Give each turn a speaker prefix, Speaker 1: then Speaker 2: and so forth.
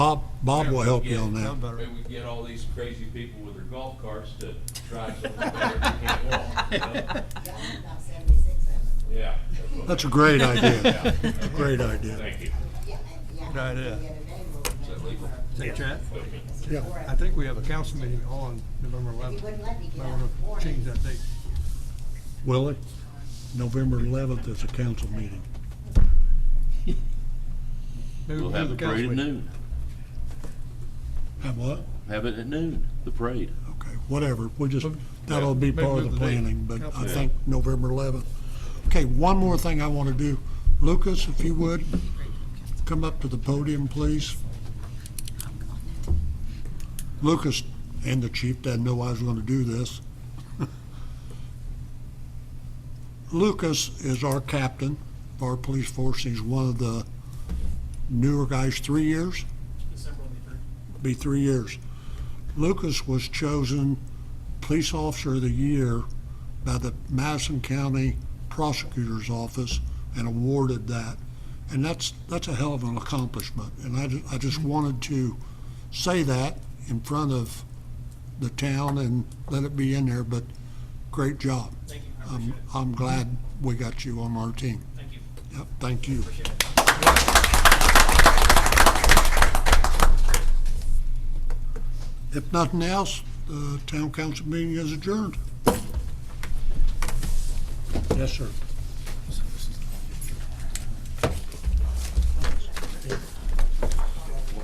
Speaker 1: Bob, Bob will help you on that.
Speaker 2: Maybe we get all these crazy people with their golf carts to drive something better they can't walk, you know?
Speaker 3: John, about seventy-six of them.
Speaker 2: Yeah. that's what-
Speaker 1: That's a great idea.
Speaker 2: Yeah.
Speaker 1: Great idea.
Speaker 2: Thank you.
Speaker 3: Yeah, and- yeah.
Speaker 4: Right,
Speaker 3: The
Speaker 4: yeah.
Speaker 3: other day, we were-
Speaker 2: that legal?
Speaker 4: Hey, Chad,
Speaker 1: Yeah.
Speaker 3: Four of
Speaker 4: I think we have a council meeting on November
Speaker 3: He
Speaker 4: 11th.
Speaker 3: wouldn't let me get
Speaker 4: Might
Speaker 3: out
Speaker 4: want
Speaker 3: of the
Speaker 4: to change
Speaker 3: morning.
Speaker 4: that date.
Speaker 1: Willie, November eleventh is a council meeting.
Speaker 4: Maybe
Speaker 5: We'll have the
Speaker 4: move
Speaker 5: parade at
Speaker 4: council meeting.
Speaker 5: noon.
Speaker 1: Have what?
Speaker 5: Have it at noon, the parade.
Speaker 1: Okay, whatever, we just, that'll be
Speaker 4: Maybe
Speaker 1: part of
Speaker 4: move
Speaker 1: the
Speaker 4: the date.
Speaker 1: planning, but I
Speaker 4: Yeah.
Speaker 1: think November 11th. Okay, one more thing I want to do. Lucas, if you would, come up to the podium, please. Lucas and the chief didn't know I was going to do this. Lucas is our captain of our police force. He's one of the newer guys, three years? be three years. Lucas was chosen Police Officer of the Year by the Madison County Prosecutor's Office and awarded that. And that's, that's a hell of an accomplishment. And I, ju- I just wanted to say that in front of the town and let it be in there, but great job. Thank you, I'm, I'm glad we got you on our team. Thank you. Yep, thank you. If nothing else, the town council meeting is adjourned. Yes, sir.